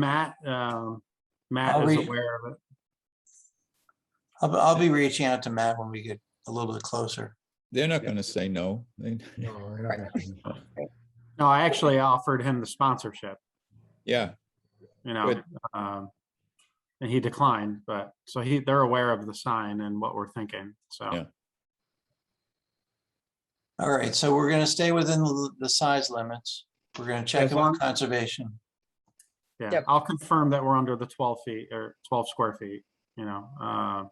Matt, um, Matt I'll is reach- aware of it. I'll, I'll be reaching out to Matt when we get a little bit closer. They're not gonna say no. They- No, I don't think- No, I actually offered him the sponsorship, Yeah, you know, Good. um, and he declined, but, so he, they're aware of the sign and what we're thinking, so. Yeah. All right, so we're gonna stay within the, the size limits. We're gonna check As in with long- conservation. Yeah, Yep. I'll confirm that we're under the twelve feet or twelve square feet, you know, uh,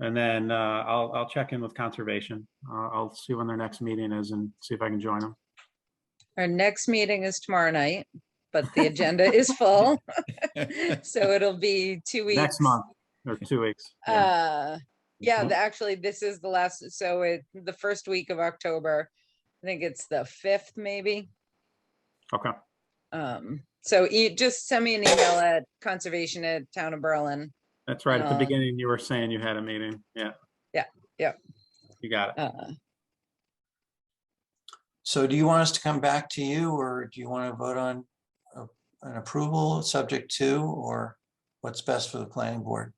and then, uh, I'll, I'll check in with conservation. Uh, I'll see when their next meeting is and see if I can join them. Our next meeting is tomorrow night, but the agenda is full. So it'll be two weeks. Next month or two weeks. Yeah. Mm-hmm. Uh, yeah, the- actually, this is the last, so it, the first week of October, I think it's the fifth maybe. Okay, Um, so you just send me an email at conservation at town of Berlin. that's right. At the Uh, beginning, you were saying you had a meeting. Yeah. Yeah, yeah. You got it. Uh, So do you want us to come back to you or do you want to vote on a- an approval subject to or what's best for the planning board?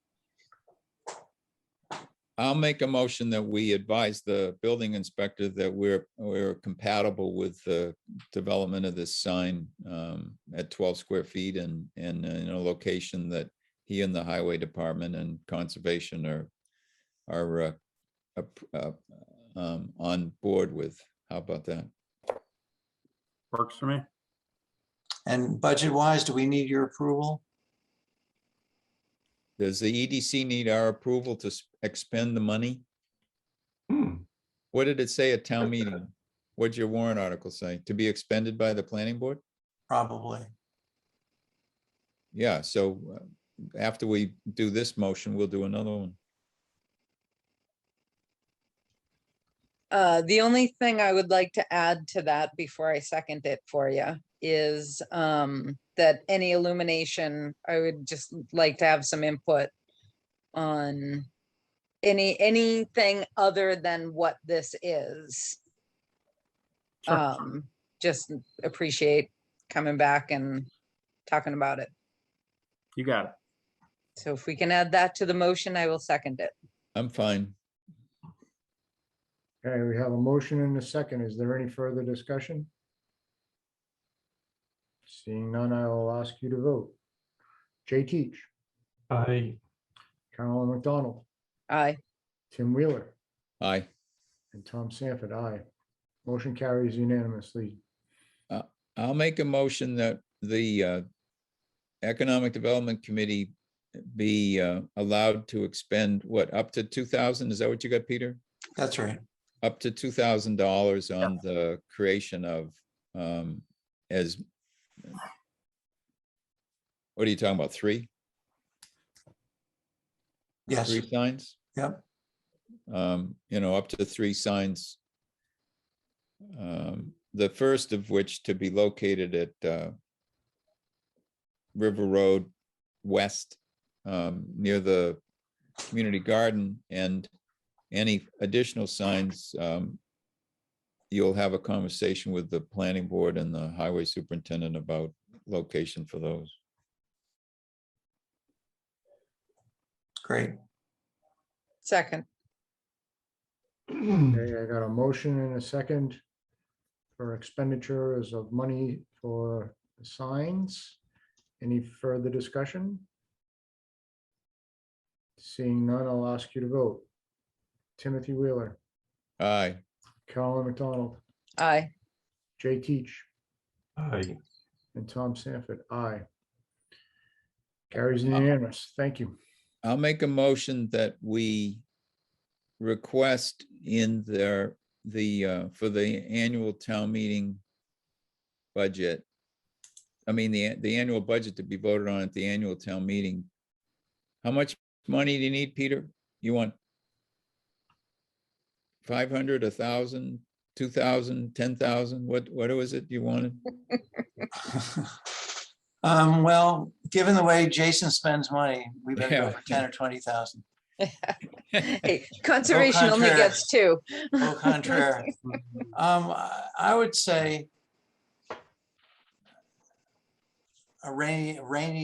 I'll make a motion that we advise the building inspector that we're, we're compatible with the development of this sign um, at twelve square feet and, and in a location that he and the highway department and conservation are, are uh, ap- uh, um, on board with. How about that? Works for me. And budget wise, do we need your approval? Does the EDC need our approval to s- expend the money? Hmm, What did it say at town meeting? What'd your warrant article say? To be expended by the planning board? Probably. Yeah, so uh, after we do this motion, we'll do another one. Uh, the only thing I would like to add to that before I second it for you is, um, that any illumination, I would just like to have some input on any, anything other than what this is. Sure. Um, just appreciate coming back and talking about it. You got it. So if we can add that to the motion, I will second it. I'm fine. okay, we have a motion and a second. Is there any further discussion? Seeing none, I will ask you to vote. Jay Teach, Aye. Carolyn McDonald, Aye. Tim Wheeler, Aye. and Tom Sanford, aye. Motion carries unanimously. I'll make a motion that the uh, Economic Development Committee be uh, allowed to expend, what, up to two thousand? Is that what you got, Peter? That's right. Up to two thousand dollars on the creation of um, as what are you talking about? Three? Yes, Three signs? yep. um, you know, up to three signs. Um, the first of which to be located at, uh, River Road West, um, near the community garden and any additional signs, um, you'll have a conversation with the planning board and the highway superintendent about location for those. Great. Second. Okay, I got a motion and a second for expenditures of money for signs. Any further discussion? Seeing none, I'll ask you to vote. Timothy Wheeler, Aye. Carolyn McDonald, Aye. Jay Teach, Aye. and Tom Sanford, aye. Carries unanimous. Thank you. I'll make a motion that we request in their, the, uh, for the annual town meeting budget. I mean, the, the annual budget to be voted on at the annual town meeting. How much money do you need, Peter? You want five hundred, a thousand, two thousand, ten thousand? What, what was it you wanted? Um, well, given the way Jason spends money, we better go Yeah. for ten or twenty thousand. Hey, Conservation only contraire. gets two. Au contraire. Um, I- I would say a rainy, rainy